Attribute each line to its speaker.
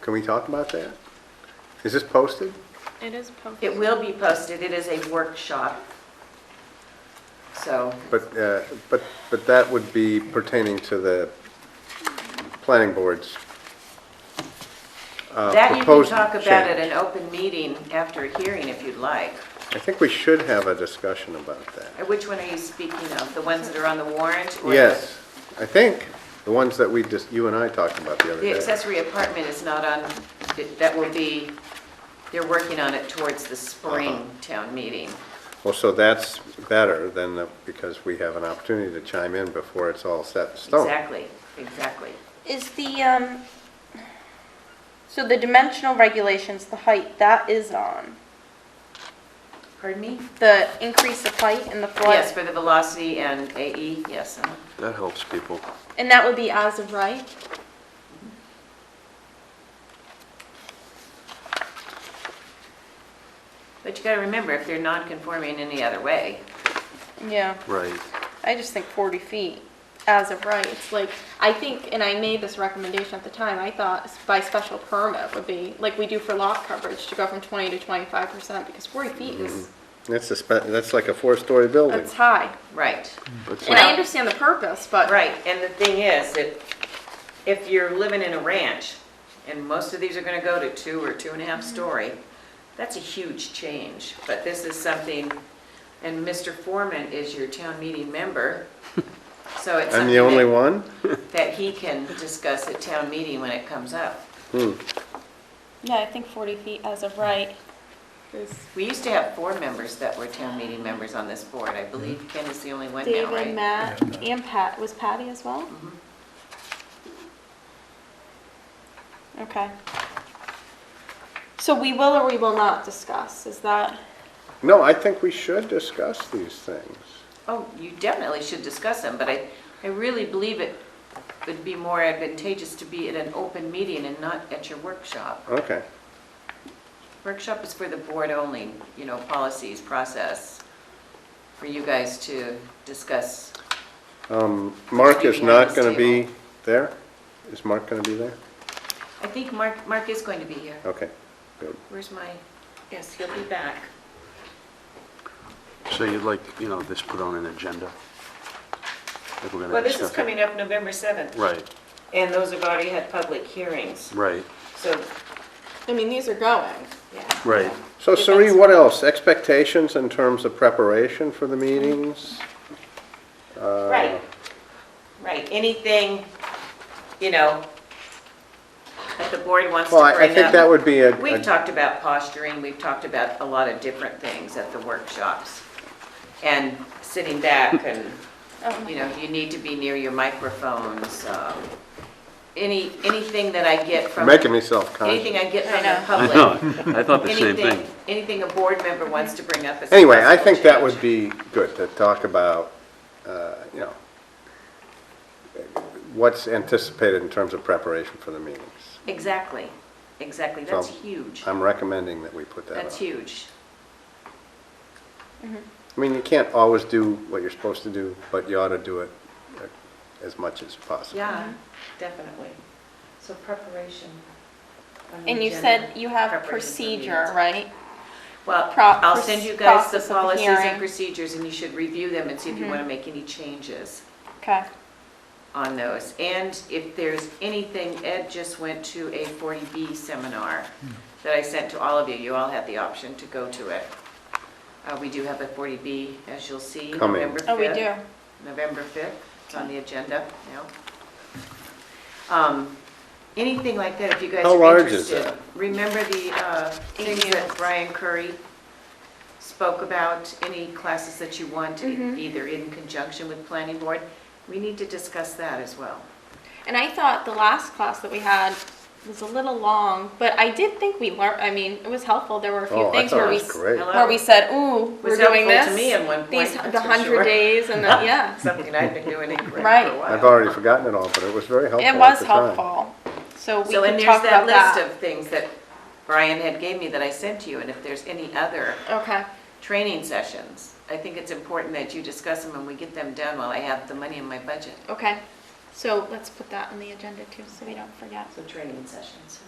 Speaker 1: Can we talk about that? Is this posted?
Speaker 2: It is posted.
Speaker 3: It will be posted, it is a workshop. So,
Speaker 1: But, uh, but, but that would be pertaining to the planning board's uh,
Speaker 3: that you can
Speaker 1: proposed
Speaker 3: talk about at
Speaker 1: change.
Speaker 3: an open meeting after a hearing if you'd like.
Speaker 1: I think we should have a discussion about that.
Speaker 3: Uh, Which one are you speaking of? The ones that are on the warrant? or the-
Speaker 1: Yes, I think, the ones that we just, you and I talked about the other
Speaker 3: The
Speaker 1: day.
Speaker 3: accessory apartment is not on, that- that will be, they're working on it towards the
Speaker 1: Uh-huh.
Speaker 3: spring town meeting.
Speaker 1: Well, so that's better than, the- because we have an opportunity to chime in before it's all set in stone.
Speaker 3: Exactly, exactly.
Speaker 4: Is the, um, so the dimensional regulations, the height, that is on,
Speaker 3: Pardon me?
Speaker 4: the increase of height and the flood?
Speaker 3: Yes, for the velocity and AE, yes. uh-huh.
Speaker 1: That helps people.
Speaker 4: And that would be as of right?
Speaker 3: But you gotta remember, if they're non-conforming any other way,
Speaker 4: Yeah,
Speaker 1: Right.
Speaker 4: I just think forty feet as of right, it's like, I think, and I made this recommendation at the time, I thought s- by special permit would be, like we do for lot coverage, to go from twenty to twenty-five percent, because forty feet is,
Speaker 1: That's a, spe- that's like a four-story building.
Speaker 4: that's high.
Speaker 3: right.
Speaker 4: And I
Speaker 3: Well-
Speaker 4: understand the purpose, but.
Speaker 3: Right, and the thing is, that if you're living in a ranch, and most of these are gonna go to two or two and a half
Speaker 1: Mm-hmm.
Speaker 3: story, that's a huge change, but this is something, and Mr. Foreman is your town meeting member, so it's
Speaker 1: I'm
Speaker 3: something
Speaker 1: the only
Speaker 3: that-
Speaker 1: one?
Speaker 3: that he can discuss at town meeting when it comes up.
Speaker 4: Yeah, I think forty feet as of right is.
Speaker 3: We used to have four members that were town meeting members on this board, I
Speaker 1: Mm-hmm.
Speaker 3: believe Ken is the only one now,
Speaker 4: David,
Speaker 3: right? Mm-hmm.
Speaker 4: Matt, and Pat, was Patty as well? Okay. So we will or we will not discuss, is that?
Speaker 1: No, I think we should discuss these things.
Speaker 3: Oh, you definitely should discuss them, but I, I really believe it would be more advantageous to be at an open meeting and not at your workshop.
Speaker 1: Okay,
Speaker 3: Workshop is for the board only, you know, policies, process, for you guys to discuss.
Speaker 1: Um, Mark is
Speaker 3: Speaking
Speaker 1: not
Speaker 3: on this
Speaker 1: going to be
Speaker 3: table.
Speaker 1: there? Is Mark going to be there?
Speaker 3: I think Mark, Mark is going to be here.
Speaker 1: Okay, good.
Speaker 3: Where's my, yes, he'll be back.
Speaker 5: So you'd like, you know, this put on an agenda? If we're
Speaker 3: Well,
Speaker 5: going to
Speaker 3: this is
Speaker 5: discuss it?
Speaker 3: coming up November 7th,
Speaker 5: Right,
Speaker 3: and those have already had public hearings,
Speaker 5: right,
Speaker 3: so,
Speaker 4: I mean, these are going.
Speaker 3: yeah.
Speaker 5: right.
Speaker 1: So Suri, what else? Expectations in terms of preparation for the meetings?
Speaker 3: Right, right, anything, you know, that the board wants to
Speaker 1: Well,
Speaker 3: bring up.
Speaker 1: I I think that would be a,
Speaker 3: We've
Speaker 1: a-
Speaker 3: talked about posturing, we've talked about a lot of different things at the workshops. And sitting back and, you know, you need to be near your microphones. um, Any, anything that I get from,
Speaker 1: making me self-conscious.
Speaker 3: anything I get from
Speaker 4: I
Speaker 3: the
Speaker 4: know.
Speaker 5: I
Speaker 3: public.
Speaker 5: know, I thought the same
Speaker 3: Anything,
Speaker 5: thing.
Speaker 3: anything a board member wants to bring up as a
Speaker 1: Anyway, I
Speaker 3: possible
Speaker 1: think that
Speaker 3: change.
Speaker 1: would be good to talk about, uh, you know, what's anticipated in terms of preparation for the meetings.
Speaker 3: Exactly, exactly, that's
Speaker 1: So,
Speaker 3: huge,
Speaker 1: I'm recommending that we put that on.
Speaker 3: that's huge.
Speaker 1: I mean, you can't always do what you're supposed to do, but you ought to do it uh, as much as possible.
Speaker 3: Yeah, definitely. Mm-hmm. So preparation. on the
Speaker 4: And you
Speaker 3: agenda.
Speaker 4: said you have
Speaker 3: Preparation for
Speaker 4: procedure,
Speaker 3: meetings.
Speaker 4: right?
Speaker 3: Well,
Speaker 4: Pro-
Speaker 3: I'll send you guys the
Speaker 4: process of the
Speaker 3: policies and
Speaker 4: hearing.
Speaker 3: procedures, and you should review them and see if you want to make any changes
Speaker 4: Okay.
Speaker 3: on those. And if there's anything, Ed just went to a 40B seminar that I sent to all of you. You all had the option to go to it. Uh, We do have a 40B, as you'll see,
Speaker 1: Coming.
Speaker 3: November 5th.
Speaker 4: Oh, we do.
Speaker 3: November 5th, it's on the agenda now. Um, Anything like that, if you guys
Speaker 1: How
Speaker 3: are
Speaker 1: large is
Speaker 3: interested.
Speaker 1: that?
Speaker 3: Remember the uh, things that Brian Curry spoke about, any classes that you want, e- either in conjunction with planning board? We need to discuss that as well.
Speaker 4: And I thought the last class that we had was a little long, but I did think we learned, I mean, it was helpful. There were a
Speaker 1: Oh,
Speaker 4: few
Speaker 1: I
Speaker 4: things
Speaker 1: thought
Speaker 4: where
Speaker 1: it
Speaker 4: we.
Speaker 1: was
Speaker 4: s-
Speaker 1: great.
Speaker 3: Hello?
Speaker 4: Where we said, ooh, we're
Speaker 3: Was
Speaker 4: doing this.
Speaker 3: helpful to me at one point,
Speaker 4: These,
Speaker 3: that's
Speaker 4: the
Speaker 3: for
Speaker 4: hundred
Speaker 3: sure.
Speaker 4: days and the, yeah.
Speaker 3: Something I've been doing incorrect
Speaker 4: Right.
Speaker 3: for a while.
Speaker 1: I've already forgotten it all, but it was very helpful
Speaker 4: It
Speaker 1: at
Speaker 4: was
Speaker 1: the time.
Speaker 4: helpful. So we
Speaker 3: So, and
Speaker 4: can
Speaker 3: there's
Speaker 4: talk
Speaker 3: that
Speaker 4: about
Speaker 3: list
Speaker 4: that.
Speaker 3: of things that Brian had gave me that I sent to you, and if there's any other
Speaker 4: Okay,
Speaker 3: training sessions. I think it's important that you discuss them and we get them done while I have the money in my budget.
Speaker 4: okay. So let's put that on the agenda too, so we don't forget.
Speaker 3: So training sessions.